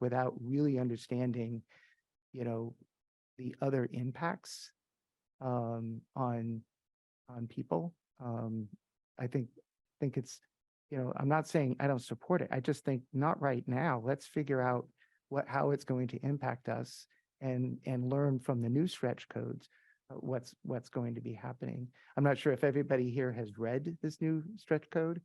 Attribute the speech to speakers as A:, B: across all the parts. A: without really understanding, you know, the other impacts um, on, on people. Um, I think, think it's, you know, I'm not saying I don't support it. I just think not right now. Let's figure out what, how it's going to impact us and, and learn from the new stretch codes, uh, what's, what's going to be happening. I'm not sure if everybody here has read this new stretch code.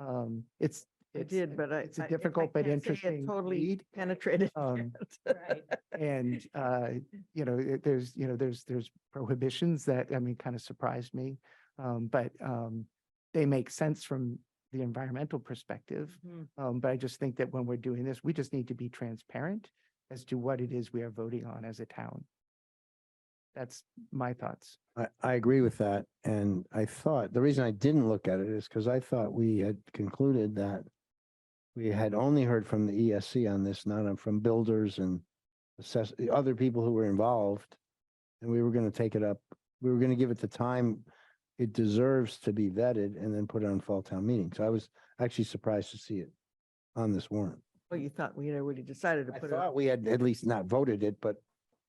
A: Um, it's,
B: I
A: it's-
B: did, but I.
A: It's a
B: I- I
A: difficult but
B: can't say it
A: interesting
B: Totally
A: read.
B: penetrated.
A: Um,
B: yet.
C: Right.
A: And, uh, you know, it- there's, you know, there's, there's prohibitions that, I mean, kind of surprised me. Um, but, um, they make sense from the environmental perspective.
C: Hmm.
B: Mhm.
A: Um, but I just think that when we're doing this, we just need to be transparent as to what it is we are voting on as a town. That's my thoughts.
D: I, I agree with that. And I thought, the reason I didn't look at it is because I thought we had concluded that we had only heard from the ESC on this, not on- from builders and assess, the other people who were involved. And we were going to take it up, we were going to give it the time it deserves to be vetted and then put it on fall town meeting. So I was actually surprised to see it on this warrant.
B: Well, you thought we had already decided to
D: I
B: put it, up.
D: thought we had at least not voted it, but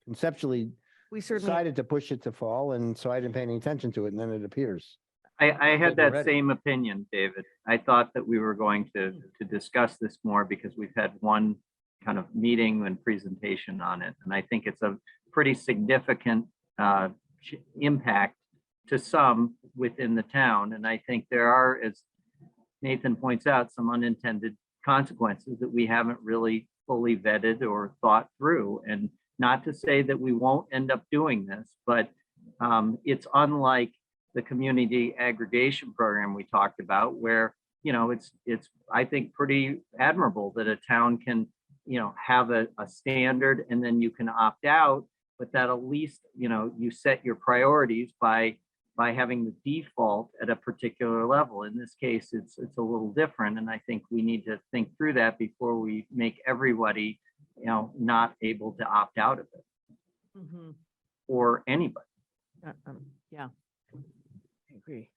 D: conceptually
B: we certainly,
D: decided to push it to fall, and so I didn't pay any attention to it, and then it appears.
E: I, I
D: think
E: had
D: we're
E: that
D: ready.
E: same opinion, David. I thought that we were going to, to discuss this more because we've had one kind of meeting and presentation on it. And I think it's a pretty significant uh, ch- impact to some within the town. And I think there are, as Nathan points out, some unintended consequences that we haven't really fully vetted or thought through. And not to say that we won't end up doing this, but um, it's unlike the community aggregation program we talked about where, you know, it's, it's, I think, pretty admirable that a town can, you know, have a, a standard and then you can opt out, but that at least, you know, you set your priorities by, by having the default at a particular level. In this case, it's, it's a little different. And I think we need to think through that before we make everybody, you know, not able to opt out of it
B: Mhm.
E: or anybody.
B: Uh, um, yeah. I agree.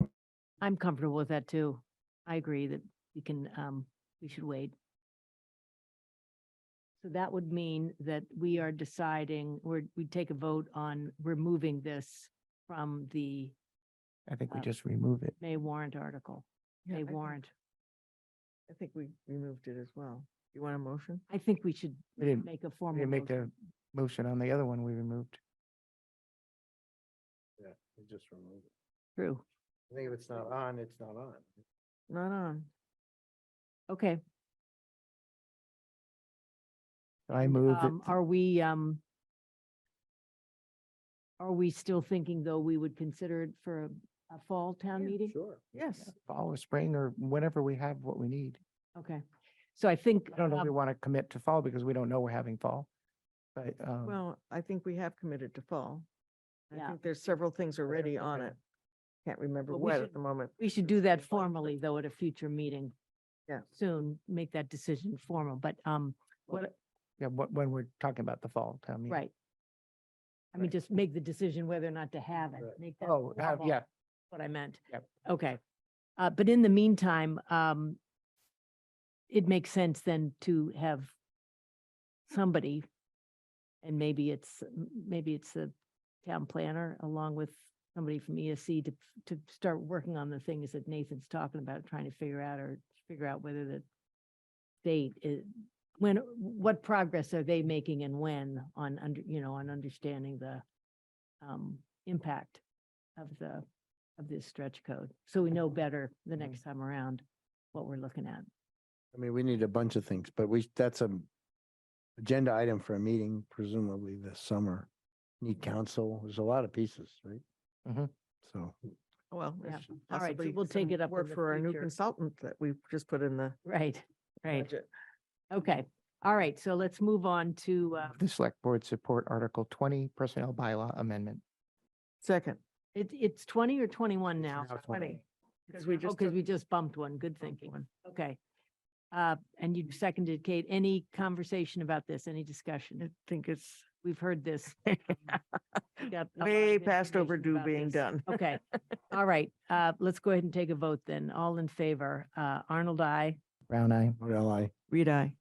C: I'm comfortable with that too. I agree that we can, um, we should wait. So that would mean that we are deciding, we're, we take a vote on removing this from the
A: I think we
C: Um,
A: just remove it.
C: May warrant article,
B: I
C: May
B: think-
C: warrant.
B: I think we removed it as well. You want a motion?
C: I think we should
A: We didn't,
C: make a
A: we
C: formal.
A: didn't make
C: motion.
A: a motion on the other one we removed.
D: Yeah, we just removed it.
C: True.
D: I think if it's not on, it's not on.
B: Not on.
C: Okay.
A: I move
C: Um,
A: it.
C: are we, um, are we still thinking though we would consider it for a- a fall town
B: Yeah,
C: meeting?
D: Sure.
B: Yes.
A: fall or spring or whenever we have what we need.
C: Okay. So I think.
A: I don't know if
C: um,
A: we want to commit to fall because we don't know we're having fall. But, um,
B: Well, I think we have committed to fall. I
C: Yeah.
B: think there's several things already on
A: okay.
B: it. Can't remember
C: But we
B: what
C: should-
B: at the moment.
C: We should do that
B: Right.
C: formally, though, at a future meeting.
B: Yeah.
C: Soon, make that decision formal, but, um, what,
A: yeah, wh- when we're talking about the fall, tell me.
C: right. I mean,
A: Right.
C: just make the decision whether or not to have it,
D: Right.
C: make that.
A: Oh, uh,
C: formal,
A: yeah,
C: What I meant.
A: Yep.
C: Okay, uh, but in the meantime, um, it makes sense then to have somebody, and maybe it's, m- maybe it's the town planner along with somebody from ESC to, to start working on the things that Nathan's talking about, trying to figure out or figure out whether the date uh, is, when, what progress are they making and when on under, you know, on understanding the um, impact of the, of this stretch code. So we know better the
B: Mm-hmm.
C: next time around what we're looking at.
D: I mean, we need a bunch of things, but we, that's a agenda item for a meeting presumably this summer. Need council, there's a lot of pieces, right? Mm-hmm.
A: Mhm.
D: So.
B: Well.
C: Yeah.
B: there's
C: All right, so
B: possibly
C: we'll take
B: some
C: it up in
B: Work
C: the
B: for our new
C: future.
B: consultant that we've just put in the
C: Right, right.
B: budget.
C: Okay. All right. So let's move on to, uh,
A: the select board support Article twenty personnel bylaw amendment.
B: Second,
C: it,
B: Mm-hmm.
C: it's twenty or twenty-one now?
A: now
B: 20, because we just.
C: Because
B: took
C: Oh, we just bumped one. Good thinking.
B: one.
C: Okay. Uh, and you seconded Kate. Any conversation about this? Any discussion?
B: I think it's
C: We've heard this. We've got a lot of
B: way past
C: information
B: overdue
C: about
B: being
C: this.
B: done.
C: Okay, all right, uh, let's go ahead and take a vote then. All in favor, uh, Arnold, I.
A: Brown eye.
D: What do I?
B: Reed, I.